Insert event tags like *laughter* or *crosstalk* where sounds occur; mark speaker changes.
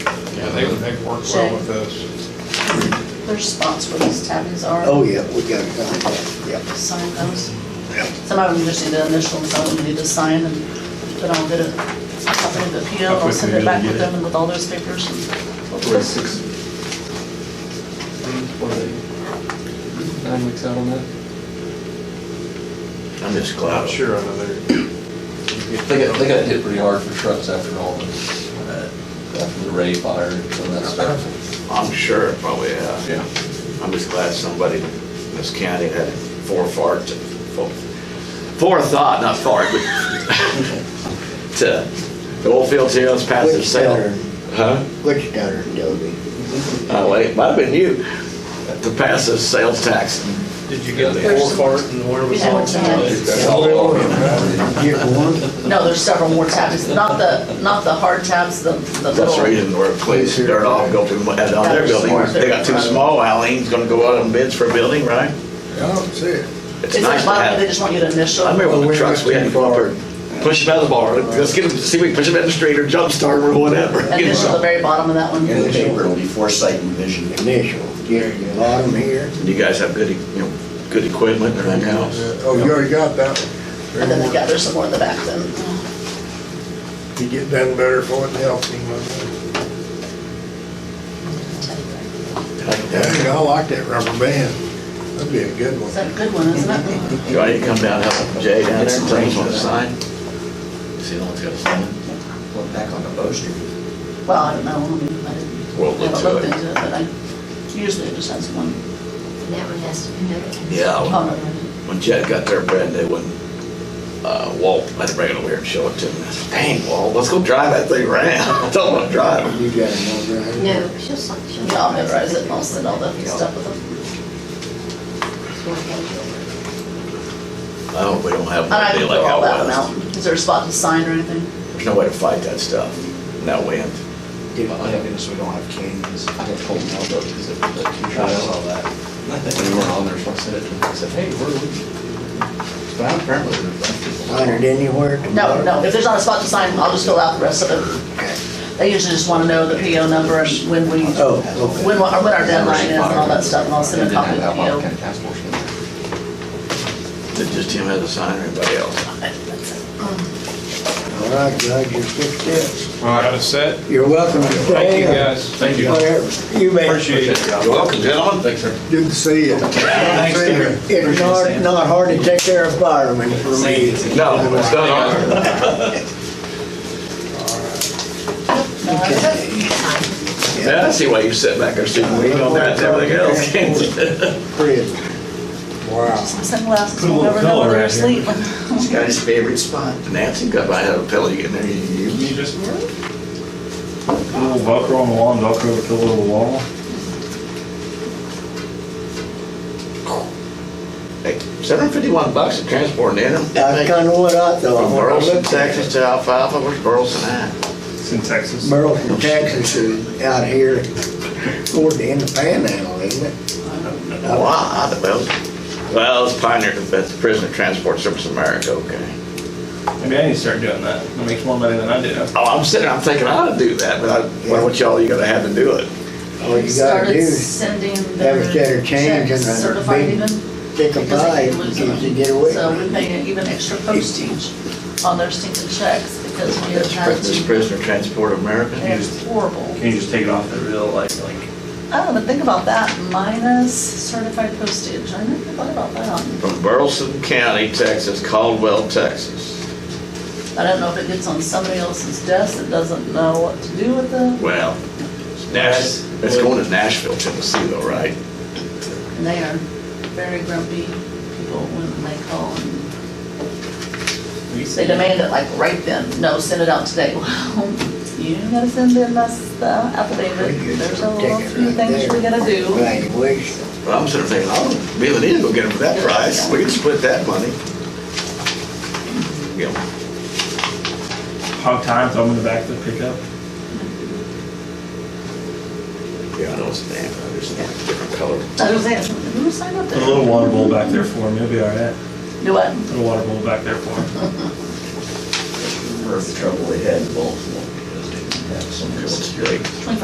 Speaker 1: they, they've worked well with us.
Speaker 2: Their spots where these tabbies are.
Speaker 3: Oh, yeah, we got it done, yeah,
Speaker 2: Sign those.
Speaker 3: yeah.
Speaker 2: Some of them just need the initials, I would need to sign and then I'll get a copy of the PO.
Speaker 4: How
Speaker 2: I'll send
Speaker 4: quickly
Speaker 2: it back
Speaker 4: did you
Speaker 2: with
Speaker 4: get it?
Speaker 2: them and with all those papers.
Speaker 5: Forty-six. What are they? Nine weeks out on that?
Speaker 6: I'm just
Speaker 1: I'm
Speaker 6: glad.
Speaker 1: sure I know they're.
Speaker 5: They got, they got hit pretty hard for trucks after all the, uh, after the Ray fire and some of that stuff.
Speaker 6: I'm sure it probably has.
Speaker 5: Yeah.
Speaker 6: I'm just glad somebody in this county had forethought, to- fore- forethought, not fart, but *laughs* to, the oil fields here, let's pass the
Speaker 3: Which
Speaker 6: sale.
Speaker 3: town?
Speaker 6: Huh?
Speaker 3: Which down in Dobie?
Speaker 6: Oh, wait, it might have been you, to pass the sales tax.
Speaker 4: Did you get the
Speaker 2: There's-
Speaker 4: four cart and where was
Speaker 2: Yeah,
Speaker 4: all
Speaker 2: it's in
Speaker 4: that?
Speaker 2: there.
Speaker 4: That's
Speaker 3: Yeah.
Speaker 4: all over.
Speaker 3: Get
Speaker 7: Oh,
Speaker 3: one?
Speaker 2: No, there's several more tabs, not the, not the hard tabs, the, the
Speaker 6: That's the
Speaker 2: little.
Speaker 6: reason we're pleased, dirt off, go to, add on their building. They got two small Alleen's gonna go out on bids for a building, right?
Speaker 3: I don't see it.
Speaker 6: It's
Speaker 2: Is
Speaker 6: nice
Speaker 2: it
Speaker 6: to
Speaker 2: bottom,
Speaker 6: have.
Speaker 2: they just want you to initial?
Speaker 6: I remember when the trucks, we had to go up
Speaker 3: Well,
Speaker 6: there, push them out of the bar, let's get them, see if we can push them out of the street or jump start them or whatever.
Speaker 2: Initial at the very bottom of that one.
Speaker 8: In the paper, it'll be foresight and vision.
Speaker 3: Initial, yeah, you lot them here.
Speaker 6: You guys have good, you know, good equipment and everything else.
Speaker 7: Oh, you already got that one.
Speaker 2: And then they got, there's some more in the back then.
Speaker 7: You get done better for it and help him. with it. Dang, I like that rubber band. That'd be a good one.
Speaker 2: Is that a good one, isn't it?
Speaker 6: You want to come down, and help Jay down there, James on the sign? See, no one's got a sign.
Speaker 8: Look back on the Bow Street.
Speaker 2: Well, I don't know, I mean, I didn't.
Speaker 6: We'll look
Speaker 2: haven't
Speaker 6: to
Speaker 2: looked
Speaker 6: it.
Speaker 2: into But I, usually it just has one.
Speaker 9: And that one has to be notarized.
Speaker 6: Yeah, when-
Speaker 2: Oh, no, no, no.
Speaker 6: when Jed got their bread, they wouldn't, uh, Walt, I had to bring it over here and show it to him. I said, Dang, Walt, let's go drive that thing around. *laughs* I don't want to drive it.
Speaker 3: You got another idea?
Speaker 9: No, she'll, sign- she'll.
Speaker 2: Yeah, I'll memorize it and I'll send all the stuff with them.
Speaker 9: It's one page over.
Speaker 6: I hope Oh, we don't have
Speaker 2: And I
Speaker 6: one
Speaker 2: can
Speaker 6: deal
Speaker 2: fill
Speaker 6: like
Speaker 2: all
Speaker 6: out
Speaker 2: that one out.
Speaker 6: west.
Speaker 2: Is there a spot to sign or anything?
Speaker 6: There's no way to fight that stuff, in that wind.
Speaker 8: Oh, thank goodness we don't have canyons. I had told Mel though, because it was like two
Speaker 6: I
Speaker 8: shots
Speaker 6: know.
Speaker 8: all that. When we were on there, so I said it, to him. I said, hey, where are we? But apparently there's a bunch of people.
Speaker 3: Hundred anywhere?
Speaker 2: No, no, if there's not a spot to sign, I'll just fill out the rest of it. They usually just wanna know the PO number and when we,
Speaker 3: Oh,
Speaker 2: when,
Speaker 3: okay.
Speaker 2: or when our deadline is and all that stuff, and I'll send a copy of the
Speaker 8: Albemarle
Speaker 2: PO.
Speaker 8: County Task Force in there.
Speaker 6: Did just him have a sign or anybody else?
Speaker 3: All right, glad you fixed this.
Speaker 1: All right, it's set.
Speaker 3: You're welcome to stay.
Speaker 1: Thank you, guys. Thank you.
Speaker 3: You bet.
Speaker 1: Appreciate it.
Speaker 6: You're welcome, gentlemen. Thanks, sir.
Speaker 7: Good to see you.
Speaker 3: Thanks,
Speaker 7: Peter.
Speaker 3: It's not, not hard to take care of firemen for me.
Speaker 6: No, it's not on. Yeah, I see why you sit back there sitting weed on that and everything else. This
Speaker 3: Pretty. Wow.
Speaker 2: Sunglasses,
Speaker 4: Put a
Speaker 2: we'll
Speaker 4: little
Speaker 2: never know
Speaker 4: color
Speaker 2: whether they're
Speaker 4: out here.
Speaker 2: asleep.
Speaker 6: guy's favorite spot. Nancy got by had a pillow you get in there. You you-
Speaker 4: You just, a little bucker on the wall, knock over to a little wall.
Speaker 6: Hey, seven fifty-one bucks to transport in them.
Speaker 3: That's kinda what I
Speaker 6: From
Speaker 3: thought. when I
Speaker 6: Burleson,
Speaker 3: looked at it.
Speaker 6: Texas to Alfalfa, where's Burleson at?
Speaker 4: It's in Texas.
Speaker 3: Burleson, Texas is out here toward the end of Panhandle, isn't it?
Speaker 6: Well, I I don't know. Well, it's Pioneer, that's Prisoner Transport Service of America, okay.
Speaker 4: Maybe I need to start doing that. That makes more money than I do.
Speaker 6: Oh, I'm sitting, I'm thinking I ought to do that, but I, why don't y'all, you gotta have to do it.
Speaker 3: All you gotta do
Speaker 2: Started
Speaker 3: is
Speaker 2: sending
Speaker 3: have a
Speaker 2: their
Speaker 3: set of change
Speaker 2: checks
Speaker 3: and a
Speaker 2: certified
Speaker 3: big
Speaker 2: even.
Speaker 3: take a
Speaker 2: because
Speaker 3: bite
Speaker 2: they
Speaker 3: in
Speaker 2: keep losing
Speaker 3: case you
Speaker 2: them.
Speaker 3: get away.
Speaker 2: So we pay even extra postage on their stinking checks because we have
Speaker 6: That's pri-
Speaker 2: had
Speaker 6: This
Speaker 2: to,
Speaker 6: Prisoner Transport of America.
Speaker 2: it's horrible.
Speaker 4: Can you just take it off the real, like, like,
Speaker 2: I don't know, think about that, minus certified postage, I never thought about that.
Speaker 6: From Burleson County, Texas, Caldwell, Texas.
Speaker 2: I don't know if it gets on somebody else's desk that doesn't know what to do with it,
Speaker 6: Well, Nash, it's going to Nashville, Tennessee though, right?
Speaker 2: and they are very grumpy people when they call and
Speaker 4: we
Speaker 2: they demand it like right then, no, send it out today. *laughs* Well, you gotta send in us the affidavit, there's a little few things we gotta do.
Speaker 3: Valuation.
Speaker 6: But I'm sort of thinking, oh, me and Anita go get them for that price. We can split that money. You know,
Speaker 4: hog time, throw them in the back of the pickup.
Speaker 6: yeah, I know it's damn, there's a different color.
Speaker 2: I was saying, who signed up
Speaker 4: Put a
Speaker 2: there?
Speaker 4: little water bowl back there for him. He'll be all right.
Speaker 2: Do what?
Speaker 4: Put a water bowl back there for him.
Speaker 8: for the trouble they had in Baltimore, because they didn't have some.
Speaker 6: It's great.